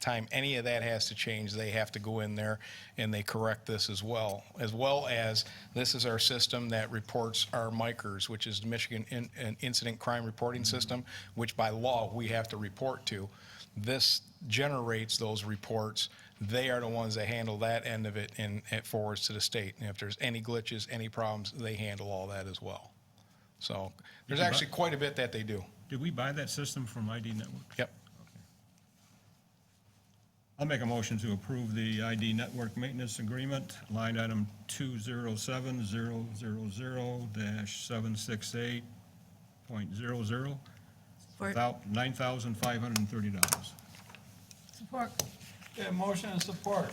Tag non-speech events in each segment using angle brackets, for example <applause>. time any of that has to change, they have to go in there and they correct this as well. As well as, this is our system that reports our micers, which is the Michigan In- an Incident Crime Reporting System, which by law, we have to report to. This generates those reports. They are the ones that handle that end of it and it forwards to the state. And if there's any glitches, any problems, they handle all that as well. So there's actually quite a bit that they do. Did we buy that system from ID Network? Yep. I'll make a motion to approve the ID Network Maintenance Agreement, line item 207-000-768.00, Support. about $9,530. Support. Okay, motion and support.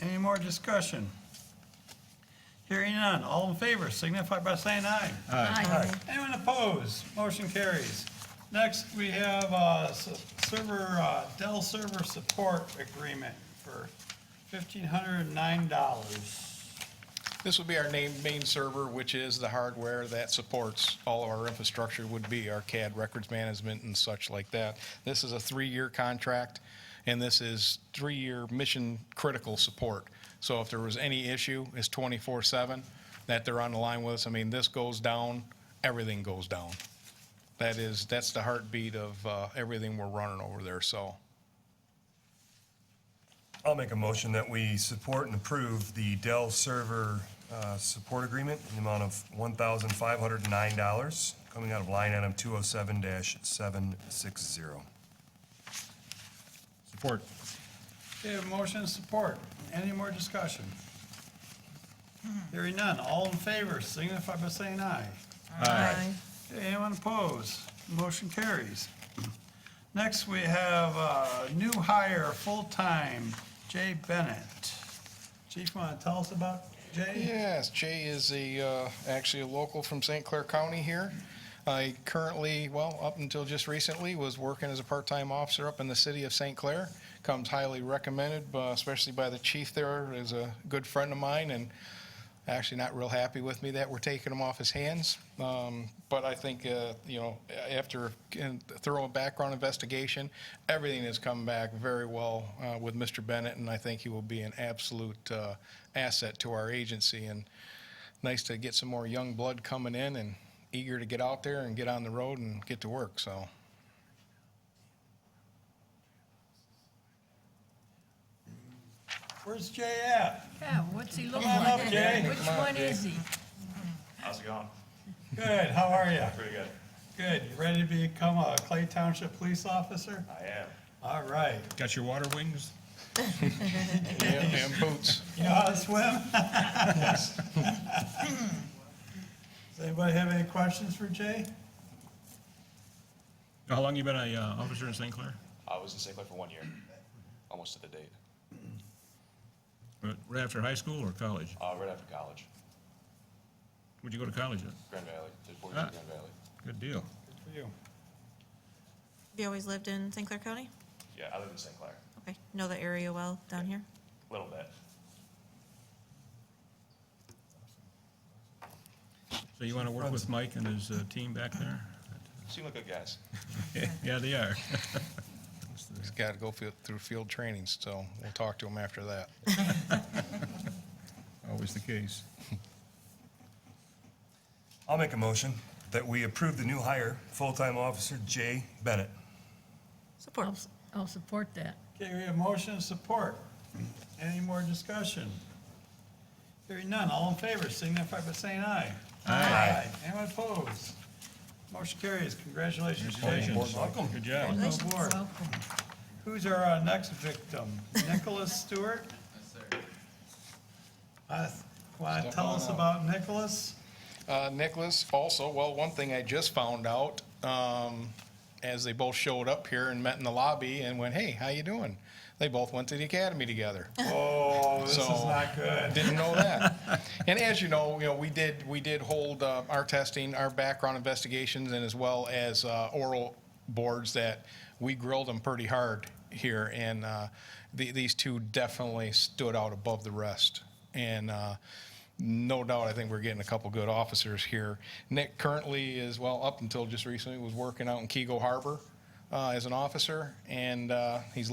Any more discussion? Hearing none, all in favor signify by saying aye. Aye. Anyone opposed? Motion carries. Next, we have uh, s- server, uh, Dell server support agreement for $1,509. This would be our name, main server, which is the hardware that supports all of our infrastructure would be our CAD records management and such like that. This is a three-year contract and this is three-year mission critical support. So if there was any issue, it's twenty-four seven that they're on the line with us. I mean, this goes down, everything goes down. That is, that's the heartbeat of, uh, everything we're running over there, so. I'll make a motion that we support and approve the Dell server uh, support agreement in the amount of $1,509, coming out of line item 207-760. Support. Okay, a motion and support. Any more discussion? Hearing none, all in favor signify by saying aye. Aye. Okay, Anyone opposed? Motion carries. Next, we have uh new hire, full-time, Jay Bennett. Chief, want to tell us about Jay? Yes, Jay is a, uh, actually a local from St. Clair County here. I currently, well, up until just recently, was working as a part-time officer up in the city of St. Clair. Comes highly recommended, uh, especially by the chief there, is a good friend of mine, and actually not real happy with me that we're taking him off his hands. Um, But I think, uh, you know, after a thorough background investigation, everything has come back very well uh, with Mr. Bennett, and I think he will be an absolute uh, asset to our agency. And nice to get some more young blood coming in and eager to get out there and get on the road and get to work, so. Where's Jay at? Yeah, what's he looking on like? up, Jay. Which one is he? How's it going? Good, how are you? Pretty good. Good, you ready to become a Clay Township Police Officer? I am. All right. Got your water wings? And boots. You know how to swim? <laughs> Does anybody have any questions for Jay? How long you been a uh, officer in St. Clair? I was in St. Clair for one year, almost to the date, Right- Right after high school or college? uh, right after college, Where'd you go to college at? Grand Valley, did four years in Grand Valley. Good deal. Good for you. Have you always lived in St. Clair County? Yeah, I live in St. Clair, Okay, know the area well down here? little bit. So you want to work with Mike and his uh, team back there? Seem like good guys. <laughs> Yeah, they <laughs> are. He's got to go fi- through field training, so we'll talk to him after that. Always the case. I'll make a motion that we approve the new hire, full-time officer Jay Bennett. Support. I'll s- I'll support that. Okay, we have motion and support. Any more discussion? Hearing none, all in favor signify by saying aye. Aye. Anyone opposed? Motion carries, congratulations. Jay. Congratulations. Welcome. Good job. Welcome aboard. Welcome. Who's our uh, next victim? Nicholas <laughs> Stewart? Yes, sir. Want to Step tell on us up. about Nicholas? Uh, Nicholas, also, well, one thing I just found out, um, as they both showed up here and met in the lobby and went, hey, how you doing? They both went to the academy together. Oh, this is So- not good. Didn't know that. And as you know, you know, we did, we did hold uh, our testing, our background investigations, and as well as uh, oral boards that we grilled them pretty hard here. And uh, the- these two definitely stood out above the rest. And uh, no doubt, I think we're getting a couple good officers here. Nick currently is, well, up until just recently, was working out in Kego Harbor uh, as an officer, and uh, he's